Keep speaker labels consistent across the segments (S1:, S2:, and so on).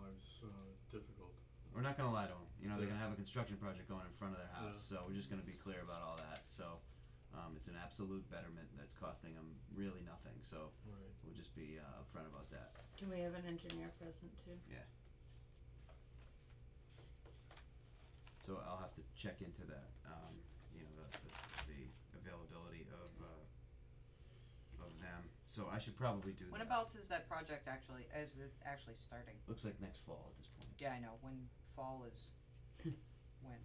S1: uh,
S2: not gonna lie to them. You know, they're
S1: Yeah.
S2: gonna have a construction project going in front of their house, so we're just gonna be clear about all that. So, um, it's an absolute betterment that's costing them really nothing. So
S1: Right.
S2: we'll just be uh, upfront about that.
S3: Can we have an engineer present too?
S2: So I'll have to check into that. Um, you know, the, the, the availability of uh, of them. So I should probably do
S4: When
S2: that.
S4: about is that project actually, is it actually starting?
S2: Looks like next fall at this point.
S4: Yeah, I know, when fall is, when?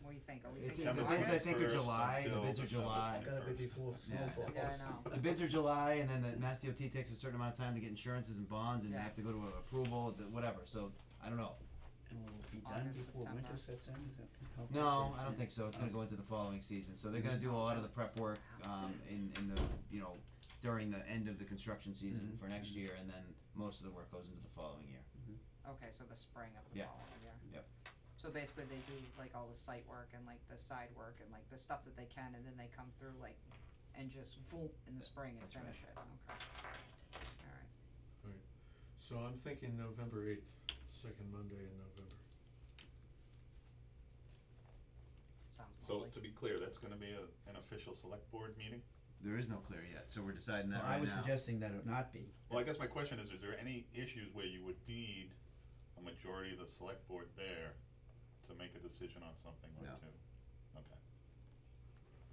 S4: What do you think, are we
S2: It's-
S4: thinking
S2: the
S4: August?
S2: bids, I think, are
S1: September
S2: July. The
S1: 1st
S2: bids are
S1: until
S2: July.
S1: December
S5: Gotta be
S1: 31st.
S5: before
S2: Yeah.
S5: snowfall.
S4: Yeah, I know,
S2: The bids are July, and then the Mass DOT takes a certain amount of time to get insurances and bonds, and they
S4: Yeah.
S2: have to go to a approval, the- whatever. So I don't know.
S5: And will it be done
S4: August,
S5: before winter
S4: September.
S5: sets in, is that how?
S2: No, I don't think so. It's gonna go into the following season. So they're gonna do a lot of the prep work um, in in the you know during the end of the construction season
S5: Mhm.
S2: for next year, and then most of the work goes into the following year.
S4: okay, so the spring of the
S2: Yeah.
S4: following year.
S2: Yep.
S4: So basically they do like all the site work and like the side work and like the stuff that they can and then they come through like and just voom in the spring and
S2: That's right.
S4: finish it, okay. Alright,
S1: So I'm thinking November eighth, second Monday in November.
S4: sounds
S6: So
S4: lovely.
S6: to be clear, that's gonna be a, an official select board meeting?
S2: There is no clear yet, so we're deciding that
S5: Well,
S2: right
S5: I was
S2: now.
S5: suggesting that it not be.
S6: Well, I guess my question is, is there any issues where you would need a majority of the select board there to make a decision on something or
S2: No.
S6: two? Okay,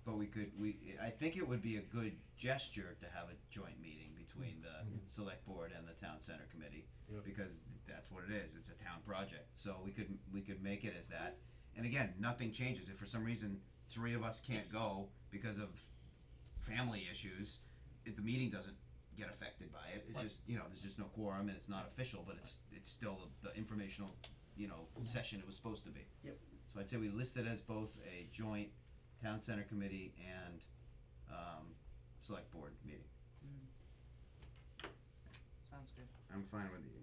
S2: But we could, we, I think it would be a good gesture to have a joint meeting between the
S1: Mhm.
S2: select board and the town center committee.
S1: Yep.
S2: Because that's what it is, it's a town project, so we could, we could make it as that, and again, nothing changes, if for some reason, three of us can't go because of family issues, if the meeting doesn't get affected by it, it's
S6: Right.
S2: just, you know, there's just no quorum and it's not official, but it's, it's still the informational, you know, session it was supposed to be.
S5: Yep.
S2: So I'd say we list it as both a joint town center committee and, um, select board meeting.
S4: Mm. Sounds good.
S2: I'm fine with the eighth.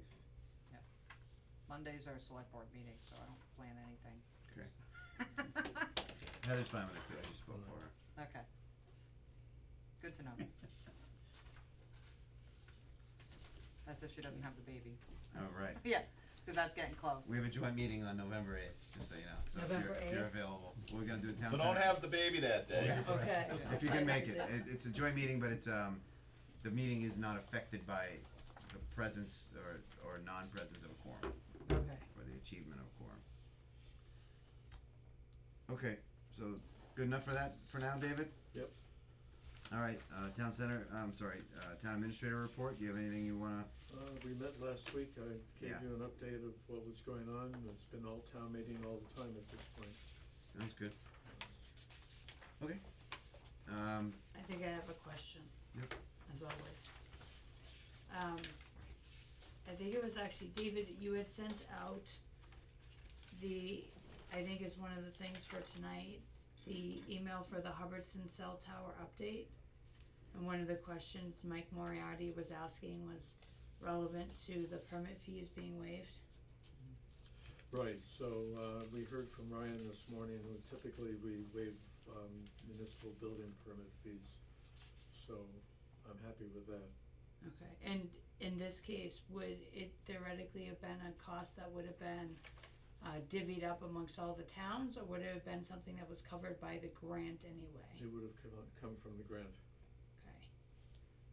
S4: Mondays are select board meetings, so I don't plan anything.
S2: Okay. Heather's fine with it too, I just spoke for her.
S4: Okay. Good to know. That's if she doesn't have the baby.
S2: All right,
S4: Yeah, cause that's getting close.
S2: we have a joint meeting on November eighth, just so you know, so if you're,
S3: November
S2: if you're
S3: 8th?
S2: available, we're gonna do a town
S6: so
S2: center.
S6: don't have the baby that day.
S5: Yeah.
S3: Okay.
S2: If you can make it, it, it's a joint meeting, but it's, um, the meeting is not affected by the presence or, or non-presence of a quorum,
S4: Okay.
S2: or the achievement of a quorum. Okay, so, good enough for that, for now, David?
S1: Yep.
S2: Alright, uh, town center, I'm sorry, uh, town administrator report, do you have anything you wanna,
S1: Uh, we met last week, I gave
S2: Yeah.
S1: you an update of what was going on, it's been all town meeting all the time at this point.
S2: sounds good. Okay, um,
S3: I think I have a question.
S2: Yep.
S3: As always. Um, I think it was actually, David, you had sent out the, I think is one of the things for tonight, the email for the Hubbardson cell tower update. And one of the questions Mike Moriarty was asking was relevant to the permit fees being waived.
S1: Right, so, uh, we heard from Ryan this morning, who typically we waive, um, municipal building permit fees, so I'm happy with that.
S3: Okay, and in this case, would it theoretically have been a cost that would have been uh divvied up amongst all the towns, or would it have been something that was covered by the grant anyway?
S1: It would have come, on- come from the grant.
S3: Okay.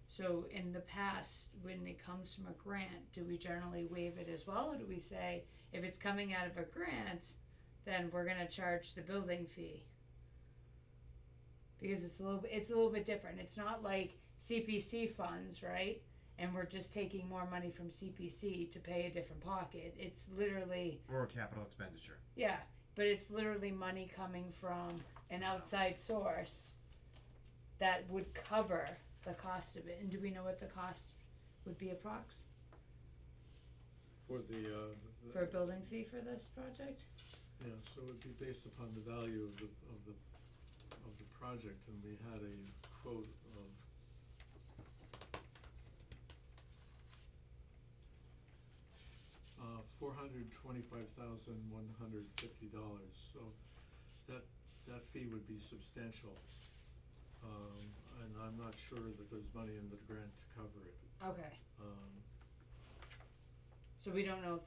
S3: So in the past, when it comes from a grant, do we generally waive it as well, or do we say, if it's coming out of a grant, then we're gonna charge the building fee? Because it's a little, bit- it's a little bit different, it's not like CPC funds, right? And we're just taking more money from CPC to pay a different pocket, it's literally,
S2: or capital expenditure,
S3: yeah, but it's literally money coming from an outside source that would cover the cost of it, and do we know what the cost would be approx?
S1: For the, uh. the-
S3: for a building fee for this project?
S1: Yeah, so it would be based upon the value of the, of the, of the project, and we had a quote of. Uh, four hundred twenty-five thousand one hundred fifty dollars, so that, that fee would be substantial. Um, and I'm not sure that there's money in the grant to cover it,
S3: Okay,
S1: um.
S3: so we don't know if